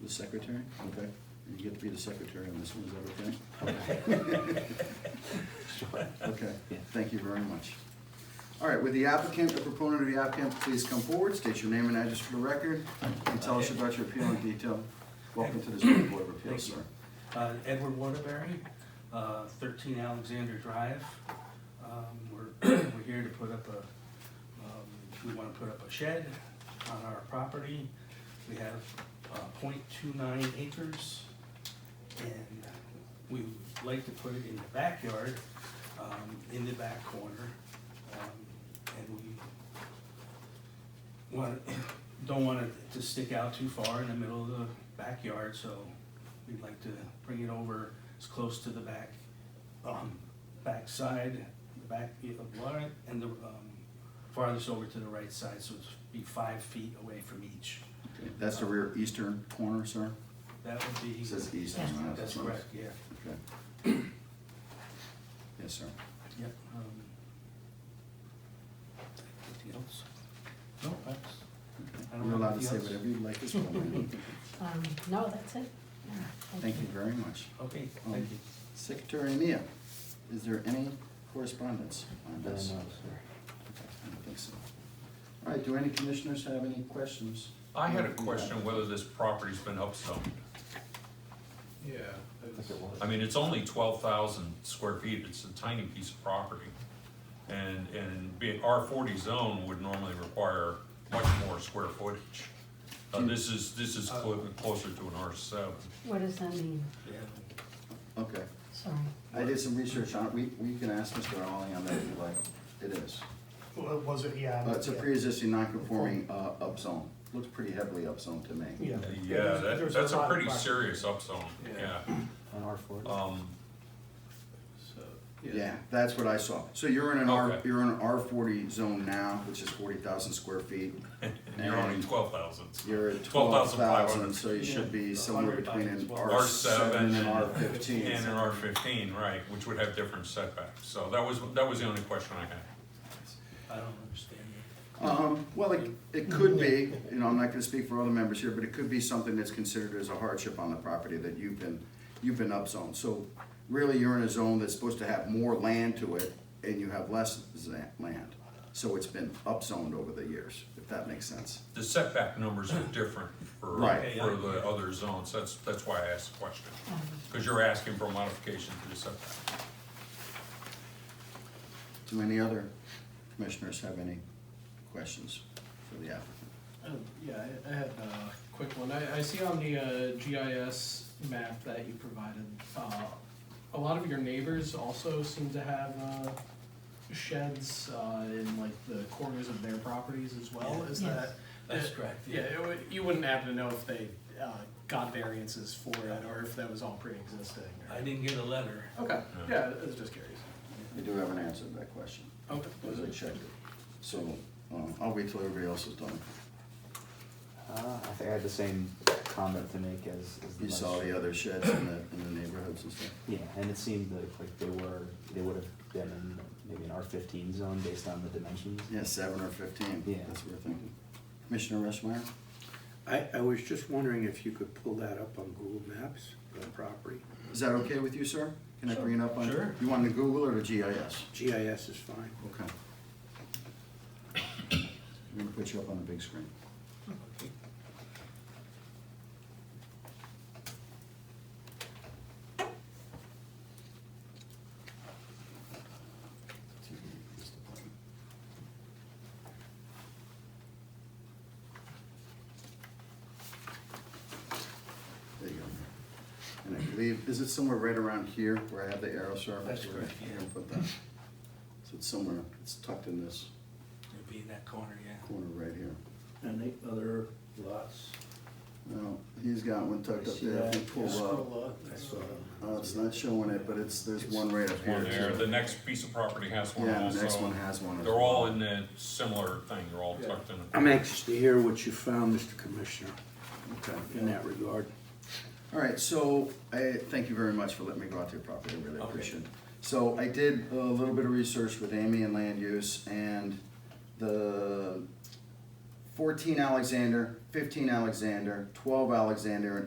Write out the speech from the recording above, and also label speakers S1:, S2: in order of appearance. S1: The secretary? Okay. You get to be the secretary on this one, is that okay?
S2: Sure.
S1: Okay, thank you very much. All right, with the applicant, the proponent of the applicant, please come forward, state your name and address for the record, and tell us about your appeal in detail. Welcome to the zoning board of appeals,
S2: Thank you.
S1: sir.
S2: Uh, Edward Waterbury, uh, 13 Alexander Drive. Um, We're, we're here to put up a, um, we want to put up a shed on our property. We have uh, .29 acres, and we would like to put it in the backyard, um, in the back corner. Um, And we want, don't want it to stick out too far in the middle of the backyard, so we'd like to bring it over as close to the back, um, backside, the back of Lawrence, and the, um, farthest over to the right side, so it's be five feet away from each.
S1: Okay, That's the rear eastern corner, sir?
S2: That would be.
S1: It says eastern. right?
S2: That's correct, yeah,
S1: Okay. Yes, sir.
S2: yep. um, Anything else? No, that's. I don't
S1: You're allowed
S2: have
S1: to say
S2: anything else.
S1: whatever you'd like this morning.
S3: Um, no, that's it. Yeah,
S1: Thank you very much.
S2: Okay,
S1: Um,
S2: thank you.
S1: Secretary Mia, is there any correspondence on this? Okay, I don't think so. All right, do any commissioners have any questions?
S4: I had a question whether this property's been upzoned.
S5: Yeah. I think it was.
S4: I mean, it's only twelve thousand square feet, it's a tiny piece of property. And, and being R forty zone would normally require much more square footage. Uh, this is, this is clo- closer to an R seven.
S3: What does that mean?
S2: Yeah.
S1: Okay,
S3: Sorry.
S1: I did some research on it, we, we can ask Mr. Rowley on that if you like, it is.
S6: Well, was it, yeah.
S1: Uh, It's a
S6: yeah.
S1: pre-existing non-conforming, uh, upzone, looks pretty heavily upzone to me.
S6: Yeah.
S4: Yeah,
S6: there's-
S4: that,
S6: there's
S4: that's a
S6: lot of
S4: pretty
S6: black-
S4: serious upzone, yeah.
S5: Yeah.
S7: On R four?
S1: Uh,
S4: Um,
S5: So,
S1: Yeah, that's what I saw. So you're in an R,
S4: Okay.
S1: you're in an R forty zone now, which is forty thousand square feet.
S4: and you're only twelve thousand.
S1: You're at twelve
S4: 12,500.
S1: thousand, so you should be somewhere between an R seven and
S4: R7
S1: an R fifteen.
S4: And an R fifteen, right, which would have different setbacks, so that was, that was the only question I had.
S2: I don't understand it.
S1: Um, well, it, it could be, you know, I'm not gonna speak for other members here, but it could be something that's considered as a hardship on the property that you've been, you've been upzoned. So really, you're in a zone that's supposed to have more land to it, and you have less za- land. So it's been upzoned over the years, if that makes sense.
S4: The setback numbers are different for,
S1: Right.
S4: for the other zones, that's, that's why I asked the question.
S3: Um,
S4: Because you're asking for a modification to the setback.
S1: Do any other commissioners have any questions for the applicant?
S5: um, Yeah, I- I had a quick one. I, I see on the uh, GIS map that you provided, uh, a lot of your neighbors also seem to have uh, sheds uh, in like the corners of their properties as well. Is
S3: Yes.
S5: that?
S2: That's correct,
S5: Yeah, it would- you wouldn't happen to know if they uh, got variances for it or if that was all pre-existing? or-
S2: I didn't get a letter.
S5: Okay,
S4: No.
S5: yeah, I was just curious.
S1: I do have an answer to that question,
S5: Okay.
S1: because I checked it. So, um, I'll wait till everybody else is done.
S7: Uh, I think I had the same comment to make as, as the.
S1: You saw
S7: last-
S1: the other sheds in the, in the neighborhoods and stuff?
S7: Yeah, and it seemed like, like they were, they would have been in maybe an R fifteen zone based on the dimensions.
S1: Yeah, seven or fifteen,
S7: Yeah.
S1: that's what we're thinking. Commissioner Reschmeyer?
S8: I, I was just wondering if you could pull that up on Google Maps, the property.
S1: Is that okay with you, sir? Can I bring it up on?
S2: Sure.
S1: You want the Google or the GIS?
S8: GIS is fine.
S1: Okay. I'm gonna put you up on the big screen.
S2: Okay.
S1: There you go. And I believe, is it somewhere right around here where I have the arrow, sir?
S2: That's correct, yeah.
S1: I'm gonna put that. So it's somewhere, it's tucked in this
S2: It'd be in that corner, yeah.
S1: corner right here.
S9: Any other lots?
S1: Now, he's got one tucked
S9: I
S1: up
S9: see
S1: there. If you
S9: that.
S1: pull up.
S5: Scroll up.
S1: Uh, it's not showing it, but it's, there's one right up here.
S4: One there,
S1: too.
S4: the next piece of property has one
S1: Yeah,
S4: also.
S1: the next one has one. as
S4: They're
S1: well.
S4: all in the similar thing, they're all tucked in.
S8: I'm anxious to hear what you found, Mr. Commissioner,
S1: Okay.
S8: in that regard.
S1: All right, so I, thank you very much for letting me go out to your property, I really
S2: Okay.
S1: appreciate it. So I did a little bit of research with Amy and land use and the fourteen Alexander, fifteen Alexander, twelve Alexander, and